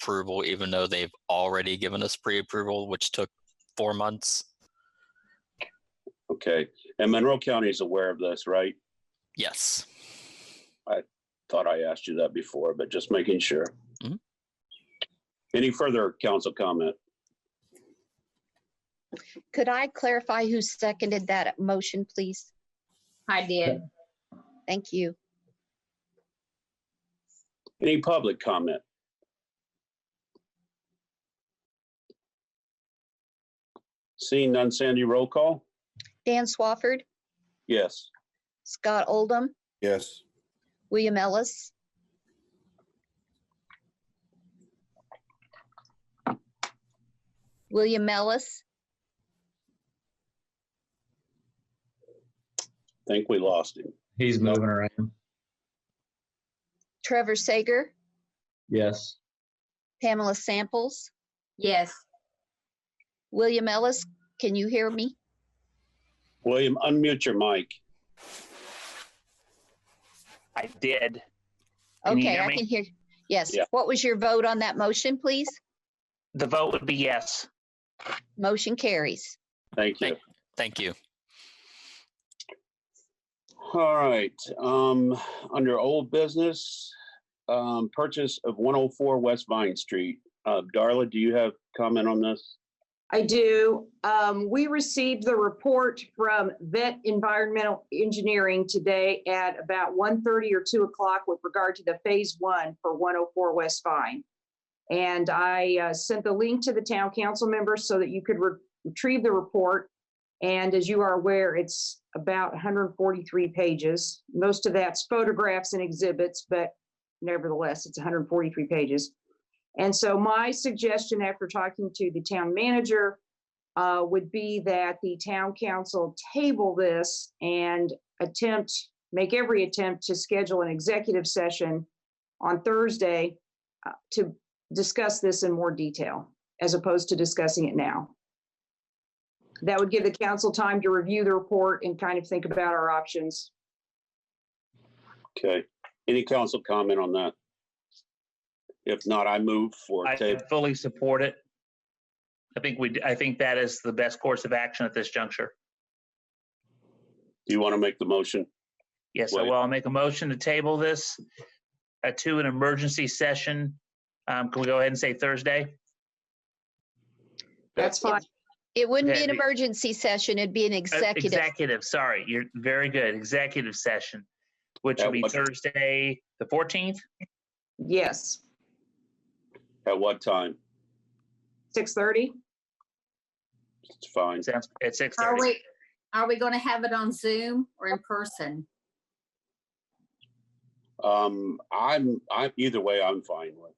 approval, even though they've already given us pre-approval, which took four months. Okay, and Monroe County is aware of this, right? Yes. Thought I asked you that before, but just making sure. Mhm. Any further council comment? Could I clarify who seconded that motion, please? I did. Thank you. Any public comment? Seeing none, Sandy, roll call? Dan Swafford, Yes. Scott Oldham, Yes. William Ellis, William Ellis, Think we lost him. He's moving around. Trevor Sager, Yes. Pamela Samples, Yes. William Ellis, can you hear me? William, unmute your mic. I did. Can you Okay, hear I me? can hear. Yes. Yeah. What was your vote on that motion, please? The vote would be yes. Motion carries. Thank you. Thank- Thank you. All right, um, under old business, um, purchase of one oh four West Vine Street. Uh, Darla, do you have comment on this? I do. Um, we received the report from Vet Environmental Engineering today at about 1:30 or two o'clock with regard to the phase one for one oh four West Vine. And I uh, sent the link to the town council members so that you could re- retrieve the report. And as you are aware, it's about hundred and forty-three pages. Most of that's photographs and exhibits, but nevertheless, it's hundred and forty-three pages. And so my suggestion after talking to the town manager uh, would be that the town council table this and attempt, make every attempt to schedule an executive session on Thursday uh, to discuss this in more detail, as opposed to discussing it now. That would give the council time to review the report and kind of think about our options. Okay, any council comment on that? If not, I move for I table. fully support it. I think we, I think that is the best course of action at this juncture. Do you want to make the motion? Yes, I Wait. will. I'll make a motion to table this uh, to an emergency session. Um, Can we go ahead and say Thursday? That's It- fine. It wouldn't be Okay, an the- emergency session. It'd be an Uh, executive. Executive, sorry. You're very good. Executive session, which will That be was- Thursday, the 14th, Yes, At what time? 6:30? It's fine. sounds- at Are 6:30. we, are we going to have it on Zoom or in person? Um, I'm, I'm, either way, I'm fine with.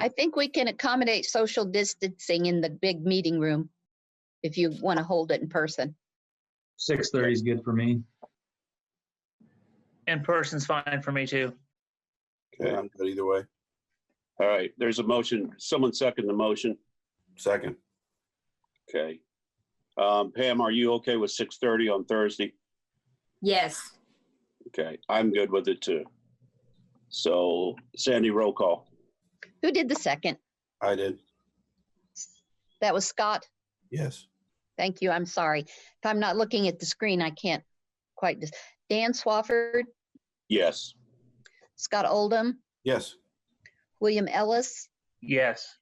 I think we can accommodate social distancing in the big meeting room if you want to hold it in person. Six thirty is good for me. In person's fine for me too. Okay, I'm good either way. All right, there's a motion. Someone second the motion. Second. Okay. Um, Pam, are you okay with six thirty on Thursday? Yes. Okay, I'm good with it too. So Sandy, roll call. Who did the second? I did. That was Scott. Yes. Thank you. I'm sorry. If I'm not looking at the screen, I can't quite. Dis- Dan Swafford, Yes. Scott Oldham, Yes. William Ellis, Yes.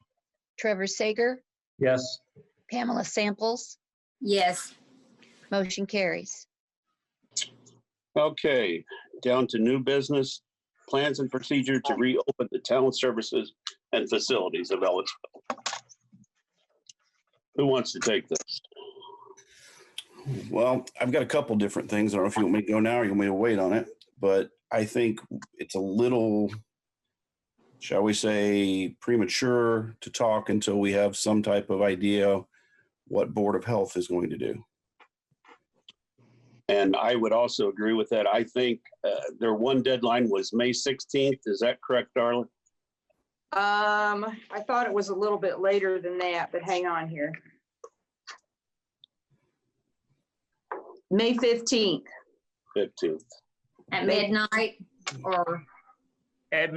Trevor Sager, Yes. Pamela Samples. Yes. Motion carries. Okay, down to new business, plans and procedure to reopen the town services and facilities of Ellisville. Who wants to take this? Well, I've got a couple different things. I don't know if you want me to go now or you want me to wait on it, but I think it's a little, shall we say, premature to talk until we have some type of idea what Board of Health is going to do. And I would also agree with that. I think uh, their one deadline was May sixteenth. Is that correct, Darla? Um, I thought it was a little bit later than that, but hang on here. May fifteenth. Fifteenth. At midnight or? At